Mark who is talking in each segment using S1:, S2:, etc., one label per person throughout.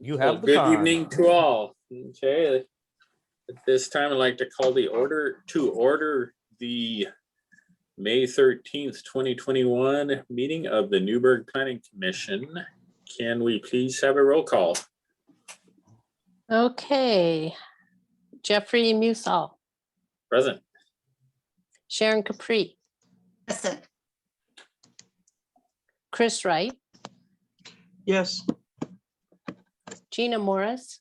S1: You
S2: Well,
S1: have the
S2: Good
S1: time.
S2: evening to all. Okay. At this time, I'd like to call the order to order the May thirteenth, twenty twenty-one meeting of the Newburgh Planning Commission. Can we please have a roll call?
S3: Okay. Jeffrey Musall,
S2: Present.
S3: Sharon Capri,
S4: Present.
S3: Chris Wright,
S5: Yes,
S3: Gina Morris.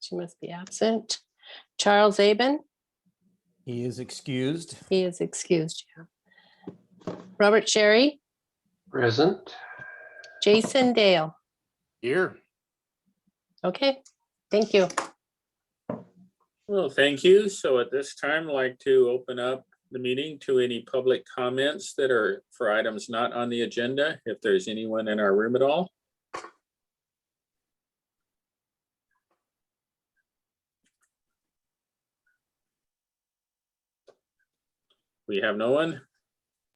S3: She must be absent. Charles Aben,
S1: He is excused.
S3: he is excused. yeah. Robert Sherry,
S6: Present.
S3: Jason Dale.
S6: Here.
S3: Okay, thank you.
S2: Well, thank you. So at this time, I'd like to open up the meeting to any public comments that are for items not on the agenda, if there's anyone in our room at all. We have no one.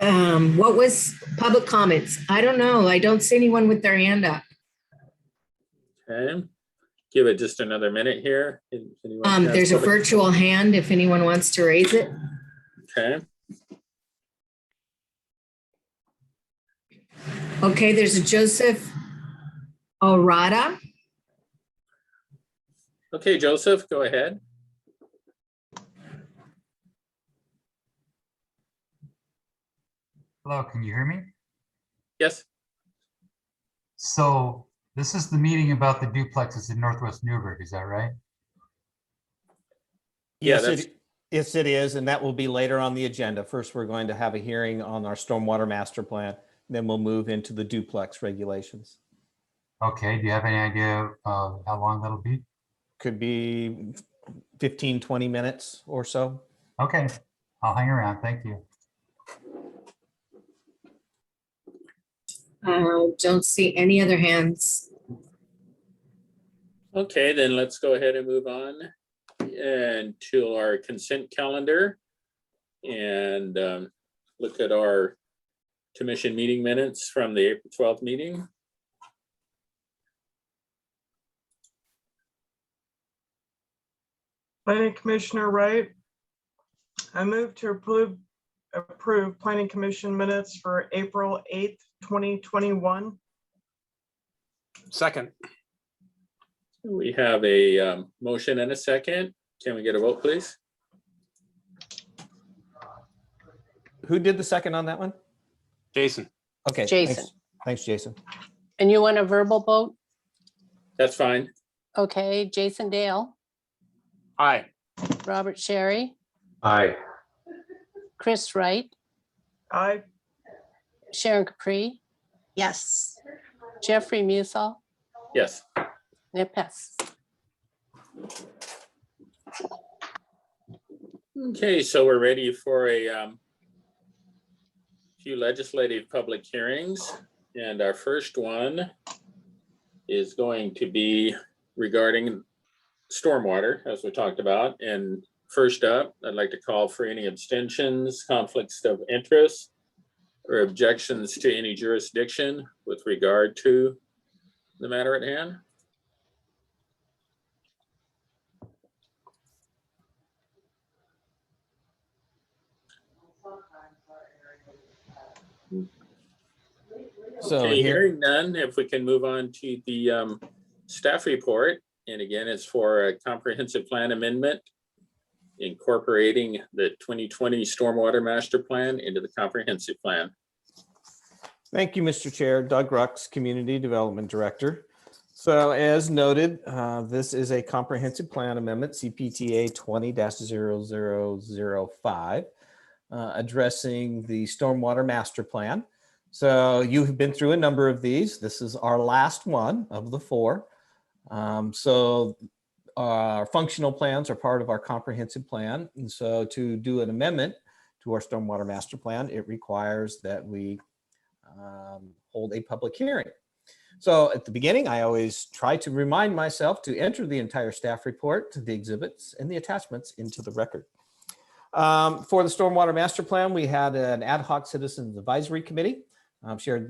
S4: Um, what was public comments? I don't know. I don't see anyone with their hand up.
S2: Okay. Give it just another minute here. If anyone
S4: Um,
S2: has
S4: there's a
S2: public-
S4: virtual hand if anyone wants to raise it.
S2: Okay,
S4: Okay, there's a Joseph Orada.
S2: okay, Joseph, go ahead.
S7: Hello, can you hear me?
S2: Yes,
S7: So this is the meeting about the duplexes in Northwest Newburgh, is that right?
S2: Yeah,
S1: Yes,
S2: that's-
S1: it, yes, it is, and that will be later on the agenda. First, we're going to have a hearing on our stormwater master plan. Then we'll move into the duplex regulations.
S7: Okay, do you have any idea uh, how long that'll be?
S1: Could be 15, 20 minutes or so.
S7: Okay, I'll hang around, thank you.
S4: Uh, don't see any other hands.
S2: Okay, then let's go ahead and move on and to our consent calendar. And um, look at our commission meeting minutes from the April twelfth meeting.
S5: planning commissioner Wright. I move to approve, approve planning commission minutes for April eighth, twenty twenty-one.
S6: Second.
S2: We have a um, motion and a second. Can we get a vote, please?
S1: Who did the second on that one?
S6: Jason.
S1: Okay. thanks.
S3: Jason.
S1: Thanks, Jason.
S3: And you want a verbal vote?
S2: That's fine.
S3: Okay, Jason Dale,
S6: Aye.
S3: Robert Sherry,
S6: Aye.
S3: Chris Wright,
S5: I,
S3: Sharon Capri,
S4: Yes.
S3: Jeffrey Musall,
S2: Yes.
S3: and it passes.
S2: Okay, so we're ready for a um, few legislative public hearings, and our first one is going to be regarding stormwater, as we talked about. And first up, I'd like to call for any abstentions, conflicts of interest, or objections to any jurisdiction with regard to the matter at hand.
S1: So
S2: Okay,
S1: here,
S2: hearing none, if we can move on to the um, staff report, and again, it's for a comprehensive plan amendment incorporating the 2020 Stormwater Master Plan into the comprehensive plan.
S1: Thank you, Mr. Chair. Doug Rucks, Community Development Director. So as noted, uh, this is a comprehensive plan amendment, CPTA 20-0005, uh, addressing the stormwater master plan. So you have been through a number of these. This is our last one of the four. Um, So our functional plans are part of our comprehensive plan. And so to do an amendment to our stormwater master plan, it requires that we um, hold a public hearing. So at the beginning, I always try to remind myself to enter the entire staff report, the exhibits, and the attachments into the record. Um, For the Stormwater Master Plan, we had an ad hoc citizens advisory committee. Um, Sharon